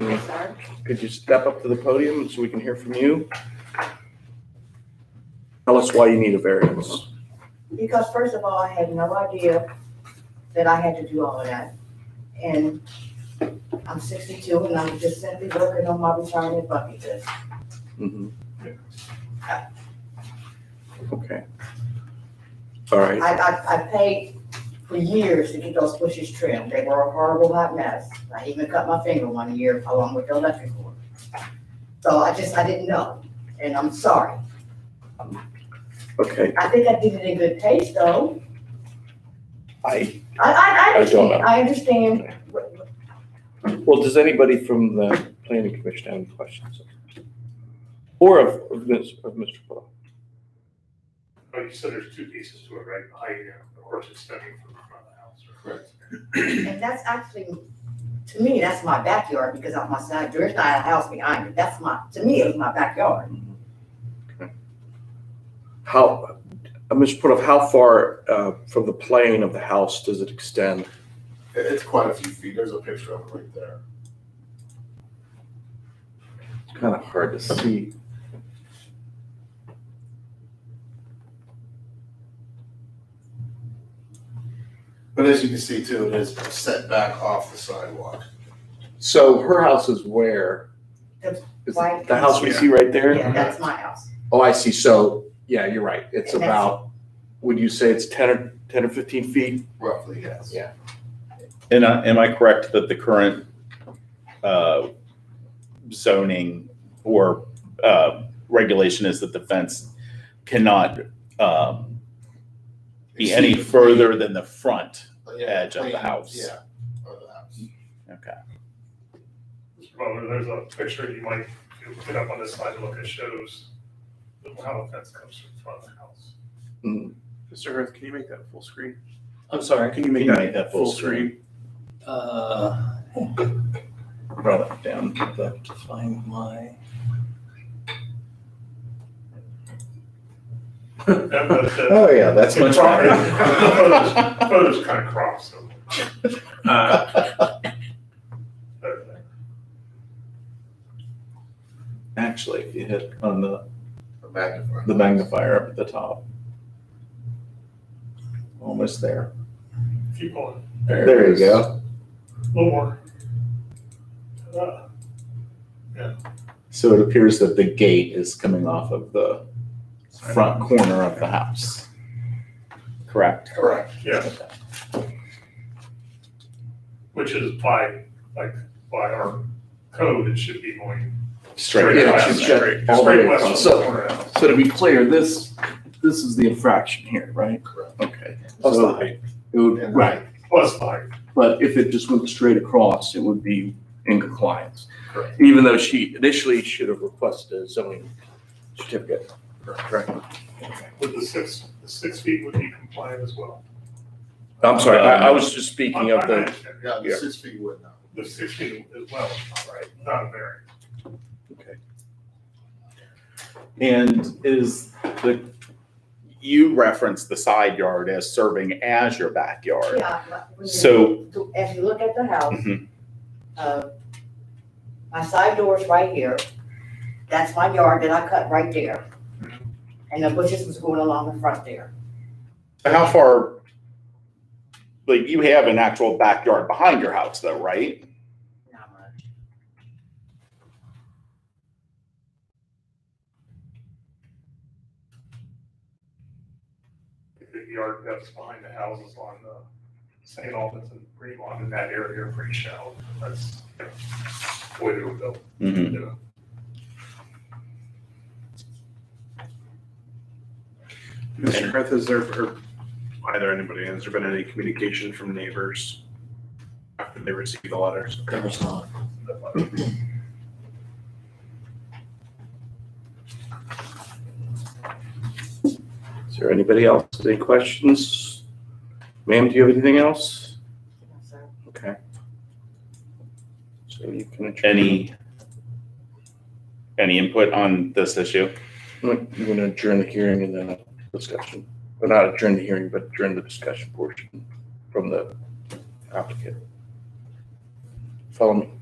Sorry. Could you step up to the podium so we can hear from you? Tell us why you need a variance. Because first of all, I had no idea that I had to do all of that. And I'm sixty-two and I'm just simply working on my retirement bucket list. Mhm. Okay. All right, I, I, I paid for years to get those bushes trimmed. They were a horrible hot mess. I even cut my finger one year along with the electric cord. So I just, I didn't know, and I'm sorry. okay, I think I did it in good taste though. I, I, I, I I don't understand, know. I understand. what- what- well, does anybody from the planning commission have any questions? Or of, of Ms., of Mr. Putoff? Oh, you said there's two pieces to it, right? The height and the horse extending from the front of the house, right? Correct. And that's actually, to me, that's my backyard because I'm my side, there's not a house behind me. That's my, to me, it's my backyard. How, uh, Mr. Putoff, how far, uh, from the plane of the house does it extend? It- It's quite a few feet. There's a picture of it right there. It's kind of hard to see. But as you can see too, it is set back off the sidewalk. So her house is where? The Is white- it the house we see right there? Yeah, that's my house. Oh, I see. So, yeah, you're right. It's And that's- about, would you say it's ten or, ten or fifteen feet? Roughly, yes. Yeah. And I, am I correct that the current uh, zoning or uh, regulation is that the fence cannot um, be any further than the front? Yeah, edge of the plane, house. Yeah, of the house. Okay. Well, there's a picture you might, if you look it up on this side, look, it shows how the fence comes from front of the house. Mr. Hurth, can you make that full screen? I'm sorry. Can you make Can you that make that full full screen? Uh, Run it down to to find my. And the- the Oh, yeah, that's much better. the Photos kind of crop, so. Uh, uh, Actually, if you hit on the, The magnifier. the magnifier up at the top. Almost there. Keep going, There you go. a little more. Uh, So it appears that the gate is coming off of the front corner of the house. Correct. Correct. Yeah, which is by, like, by our code, it should be going Straight Yeah, it across. should shut all the straight way west across. of the So, corner of the house. so to be clear, this, this is the infraction here, right? Correct. Okay. Plus the So height. It would, uh, right, Plus, like, but if it just went straight across, it would be in compliance. Correct. Even though she initially should have requested a zoning certificate. Correct. Would the six, the six feet would be compliant as well? I'm sorry, I, I was just speaking of the, Yeah, the Yeah. six feet would not. The six feet as well, right, not a variance. And is the, you referenced the side yard as serving as your backyard. Yeah. but when you- So- to- As you look at the house, Mhm. uh, my side door is right here. That's my yard that I cut right there. And the bushes was going along the front there. So How far, like you have an actual backyard behind your house though, right? Not much. the yard that's behind the houses on the St. Albans and Greenlawn in that area are pretty shallow. That's you know, the way they were built. Mm-hmm. you know. Mr. Hurth, has there, or either anybody, has there been any communication from neighbors after they received the letters? is there anybody else, any questions? Ma'am, do you have anything else? So- Okay. So you can. adjourn. Any, any input on this issue? We're going to adjourn the hearing and then a discussion, but not adjourn the hearing, but adjourn the discussion portion from the applicant. Follow me.